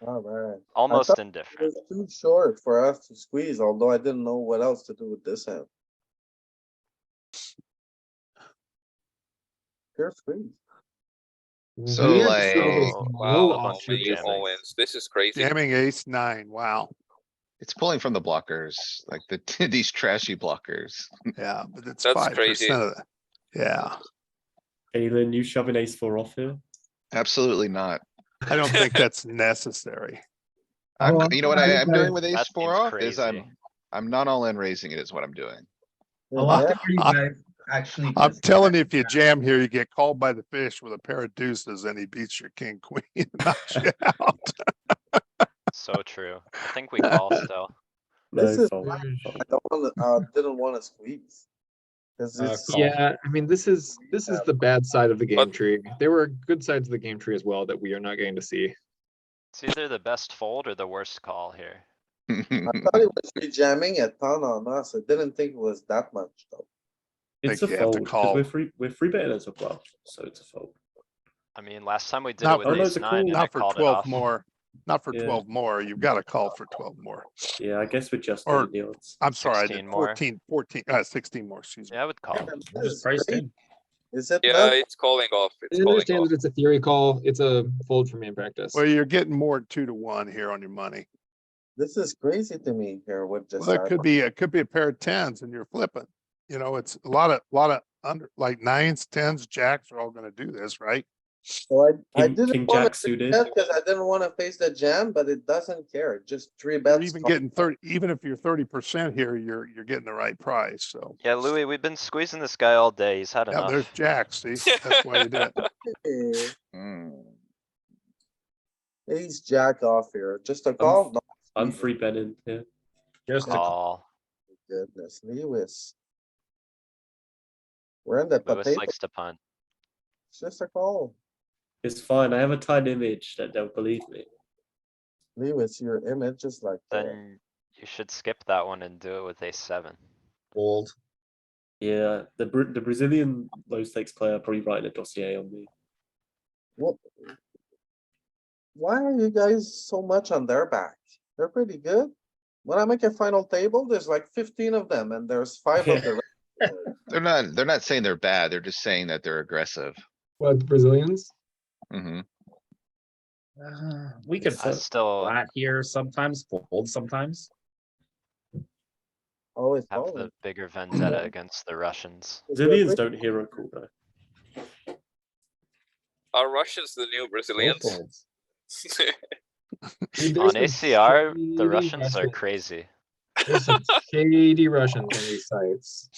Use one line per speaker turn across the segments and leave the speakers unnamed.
Alright.
almost
thought It
indifferent.
was too short for us to squeeze, although I didn't know what else to do with this hand. Pure squeeze.
So
Weird
like,
service
Oh,
and
wow,
low
a bunch of
all-in,
jamming.
Owens, this is crazy.
Jamming ace nine, wow.
It's pulling from the blockers, like the, these trashy blockers.
Mm.
Yeah, but it's
That's
five
crazy.
percent of the, yeah.
Galen, you shove an ace four off here.
Absolutely not.
I don't think that's necessary.
I'm,
Oh,
you know what
I
I
think
am
that-
doing with ace
That
four
seems
off is
crazy.
I'm, I'm not all in raising it is what I'm doing.
A lot
Yeah,
of you
I-
guys actually.
I'm
just-
telling you, if you jam here, you get called by the fish with a pair of deuces and he beats your king, queen, and knocks you out.
So true. I think we call still.
No,
This is
fold,
like-
fold.
I don't wanna, uh, didn't wanna squeeze. Cause
Uh,
it's.
Yeah, I mean, this is, this is the bad side of the game
But-
tree. There were good sides of the game tree as well that we are not getting to see.
It's either the best fold or the worst call here.
Hmm.
I thought it was rejamming a ton on us. I didn't think it was that much though.
think
It's a
you have to
fold,
call.
cause we're free, we're free betting as well, so it's a fold.
I mean, last time we did
Not
it with
for-
Oh, no,
ace
it's a
nine and I
Not for
called it
twelve
off.
more, not for
Yeah.
twelve more. You've got to call for twelve more.
Yeah, I guess we're just
Or-
in the odds.
I'm sorry, I
16
did
more.
14, 14, uh, sixteen more, excuse me.
Yeah, I would call.
Man,
I
this
just
is
priced
great.
in.
Is it?
Yeah,
not?
it's calling off. It's
I
calling
understand
off.
that it's a theory call. It's a fold for me in practice.
Well, you're getting more than two to one here on your money.
This is crazy to me here with just.
Well, that could
happened.
be, it could be a pair of tens and you're flipping. You know, it's a lot of, lot of under, like nines, tens, jacks are all gonna do this, right?
So I, I
King- king
didn't wanna
jack suited.
bet cause I didn't wanna face the jam, but it doesn't care. It Just three
You're
bets.
even getting thirty, even if you're thirty percent here, you're, you're getting the right price, so.
Yeah, Louis, we've been squeezing this guy all day. He's had
Yeah, there's
enough.
jacks, see? That's why you did it.
Eh,
Mm.
Ace jack off here. Just a call? No,
I'm free betting here.
Just a
Call.
goodness, Lewis. We're in the
Louis
potato.
likes to punt.
It's just a call.
It's fine, I have a tight image that they'll believe me.
Lewis, your image is like. that.
Then you should skip that one and do it with ace seven.
fold.
Yeah, the Bra- the Brazilian low stakes player probably writing a dossier on me.
What? Why are you guys so much on their back? They're pretty good. When I make a final table, there's like fifteen of them and there's five of the. rest.
They're not, they're not saying they're bad. They're just saying that they're aggressive.
What, the Brazilians?
hmm
Uh, we could
I
fold
still
flat here sometimes, fold sometimes.
Always.
have
following.
the bigger vendetta against the Russians.
Brazilians don't hear a call though.
Are Russians the new Brazilians?
folds.
Dude,
On
there's some
ACR, the
shady
Russians are
Russians-
crazy.
There's some shady Russians on these sites.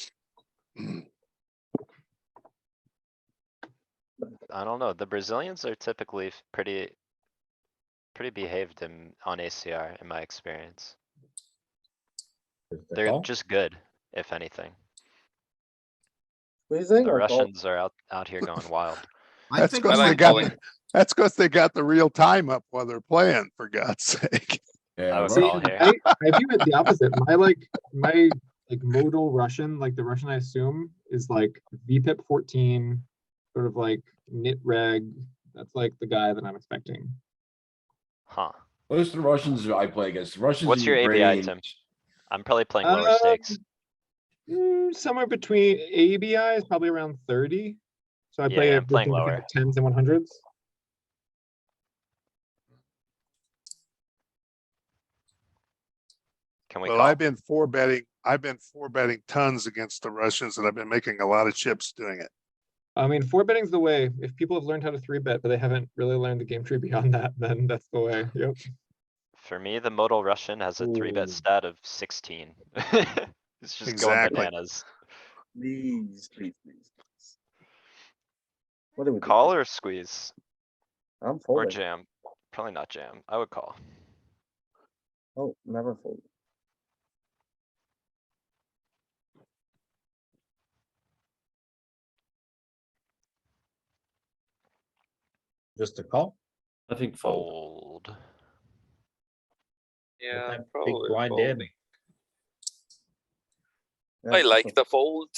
I don't know. The Brazilians are typically f- pretty. Pretty behaved in, on ACR in my experience. They're
Call?
just good, if anything.
Squeezing
The
or call?
Russians are out, out here going wild.
I
That's
think
cause
like
they got,
calling.
the- that's cause they got the real time up while they're playing, for God's sake.
I would
See,
call here.
I, I view it the opposite. My like my like modal Russian, like the Russian I assume is like VPIP 14, sort of like knit reg. That's like the guy that I'm expecting.
Huh.
Those are the Russians I play against. Russians.
What's
and
your ABI,
Ukrainians.
Tim? I'm probably playing lower stakes.
Mm, somewhere between ABI is probably around 30. So I play
Yeah,
it
I'm playing
between the
lower.
tens and 100s.
Can we
Well,
call?
I've been four betting, I've been four betting tons against the Russians and I've been making a lot of chips doing it.
I mean, four betting's the way. If people have learned how to three bet, but they haven't really learned the game tree beyond that, then that's the way. Yep.
For me, the modal Russian has a three bet
Ooh.
stat of sixteen. It's just going
Exactly.
bananas.
Please, please, please. please. What do we? do?
Call or squeeze
I'm
or
folding.
jam? Probably not jam. I would call.
Oh, never fold.
Just a call.
I think fold.
Fold.
with
Yeah,
that Big
probably.
blind
fold.
in.
I like the fold.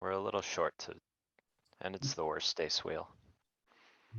We're a little short to, and it's the worst ace wheel.